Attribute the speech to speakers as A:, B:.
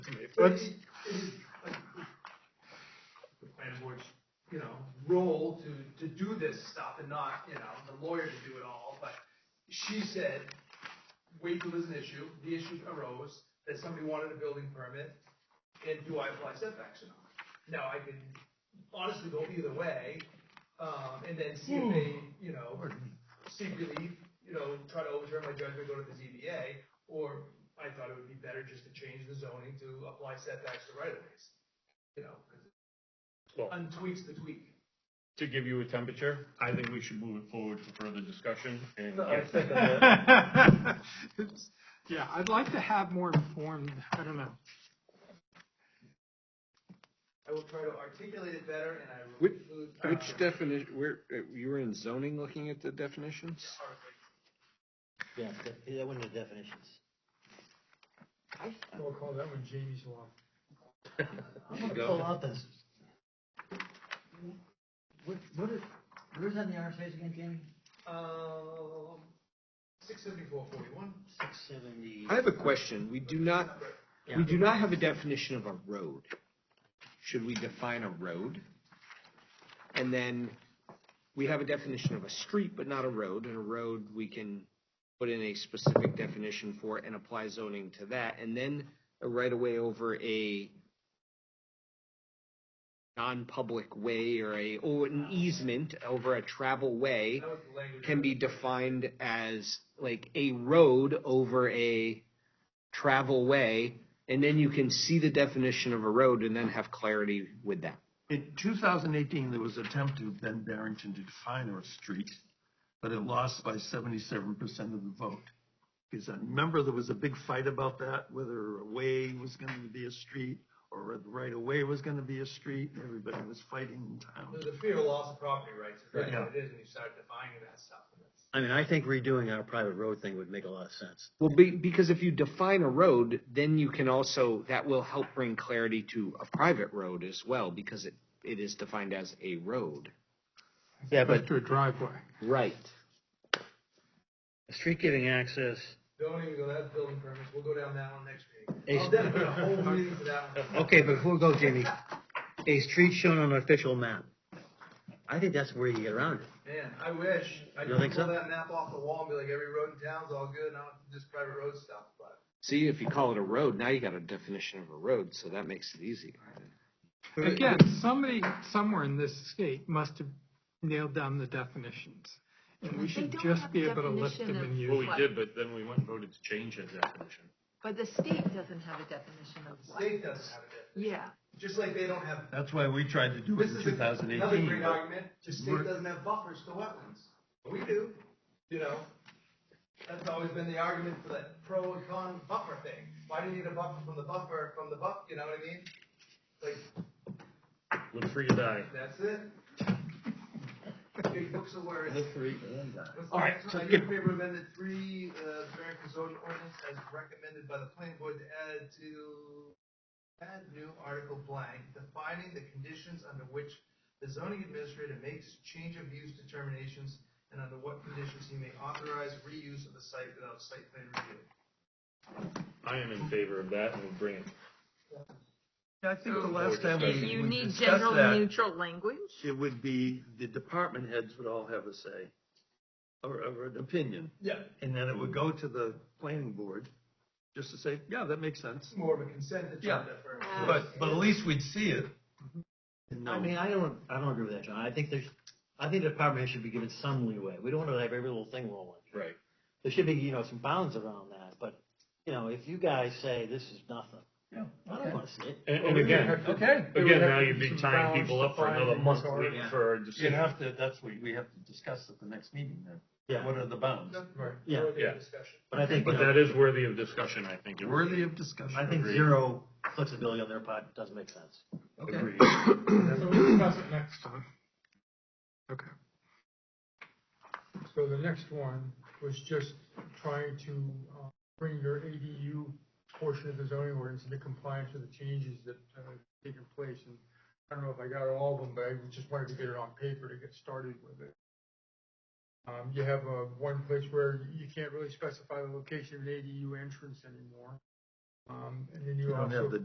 A: But
B: Let's-
A: it, it is like the planning board's, you know, role to, to do this stuff and not, you know, the lawyer to do it all, but she said, wait till there's an issue, the issue arose, that somebody wanted a building permit, and do I apply setbacks or not? Now, I can honestly go either way, um, and then see if they, you know, seek relief, you know, try to overturn my judgment, go to the ZBA, or I thought it would be better just to change the zoning to apply setbacks to right of ways. You know, 'cause
C: Well-
A: it untweaks the tweak.
C: To give you a temperature, I think we should move it forward for further discussion and get
B: It's- Yeah, I'd like to have more informed, I don't know.
A: I will try to articulate it better and I will
D: Which-
A: include. uh,
D: Which definition, where, uh, you were in zoning looking at the definitions?
A: article.
E: Yeah, that- that one of the definitions.
B: We'll call that one Jamie's Law.
E: I'm gonna pull out this. What, what is, where is that in the RSA's again, Jamie?
A: Um, six seventy-four forty-one.
E: Six seventy.
D: I have a question. We do not, we do not have a definition of a road. Should we define a road? And then we have a definition of a street, but not a road, and a road we can put in a specific definition for and apply zoning to that, and then a right of way over a non-public way or a, or an easement over a travel way.
A: That was the language.
D: can be defined as like a road over a travel way, and then you can see the definition of a road and then have clarity with that.
F: In 2018, there was an attempt to Ben Barrington to define our street, but it lost by 77% of the vote. Because I remember there was a big fight about that, whether a way was going to be a street or whether right away was going to be a street. Everybody was fighting in town.
A: There's a fear of loss of property rights, if that's
F: Yeah.
A: what it is, and you start defining that stuff. and it's-
E: I mean, I think redoing our private road thing would make a lot of sense.
D: Well, be, because if you define a road, then you can also, that will help bring clarity to a private road as well, because it, it is defined as a road.
E: Yeah, but
B: To a driveway.
D: Right.
E: a street giving access,
A: Don't even go, that's building permits, we'll go down that one next
E: Hey,
A: meeting. I'll dedicate a whole meeting to that one.
E: okay, before we go, Jamie, a street shown on an official map. I think that's where you get around it.
A: Man, I wish, I
E: You
A: could
E: don't think
A: pull
E: so?
A: that map off the wall and be like, every road in town's all good, and I don't just private road stuff, but.
D: See, if you call it a road, now you got a definition of a road, so that makes it easy.
B: Again, somebody somewhere in this state must have nailed down the definitions. And we
G: They
B: should
G: don't
B: just
G: have
B: be
G: a
B: able to lift
G: definition
B: them
G: of
B: and
C: Well,
B: use
C: we
G: What?
C: did, but then we went and voted to change that definition.
G: But the state doesn't have a definition of what.
A: State doesn't have it,
G: Yeah,
A: just like they don't have,
F: That's why we tried to do it
A: this
F: in
A: is another
F: 2018.
A: great argument, the state
F: We're-
A: doesn't have buffers to wetlands. We do, you know? That's always been the argument for that pro and con buffer thing. Why do you need a buffer from the buffer, from the buff, you know what I mean? Like,
C: Look free to die.
A: that's it. Big books of words.
F: All right, so
A: Are you
F: get-
A: in favor of amendment three, uh, variance zoning ordinance as recommended by the planning board to add to add new article blank, defining the conditions under which the zoning administrator makes change of use determinations and under what conditions he may authorize reuse of the site without site plan review.
C: I am in favor of that and we'll bring it.
F: I think the last time
C: If
F: we
G: you
F: we
G: need
F: discussed
G: general
F: that,
G: neutral language.
F: it would be, the department heads would all have a say or, or an opinion.
A: Yeah.
F: And then it would go to the planning board, just to say, yeah, that makes sense.
A: It's more of a consent agenda for.
F: But, but at least we'd see it. And
E: I
F: know.
E: mean, I don't, I don't agree with that, John. I think there's, I think the department should be given some leeway. We don't want to have every little thing rolling.
C: Right.
E: There should be, you know, some bounds around that, but, you know, if you guys say this is nothing, I don't want to see it.
C: And, and again,
F: Okay.
C: again, now you'd be tying people up for another month waiting
E: Yeah.
C: for a
F: You'd
C: decision.
F: have to, that's what we have to discuss at the next meeting then. What
E: Yeah,
F: are the bounds?
A: Right.
E: Yeah,
A: Further
C: yeah.
A: Discussion.
E: but I think, you
C: But
E: know,
C: that is worthy of discussion, I think.
F: Worthy of discussion.
E: I think
C: Agreed.
E: zero flexibility on their part doesn't make sense.
F: Okay.
C: Agreed.
B: So we'll discuss it next time. Okay.
H: So the next one was just trying to uh, bring your ADU portion of the zoning ordinance into compliance with the changes that uh, have taken place. And I don't know if I got all of them, but I just wanted to get it on paper to get started with it. Um, You have uh, one place where you can't really specify the location of an ADU entrance anymore. Um, And then
F: You
H: you
F: don't
H: also
F: have the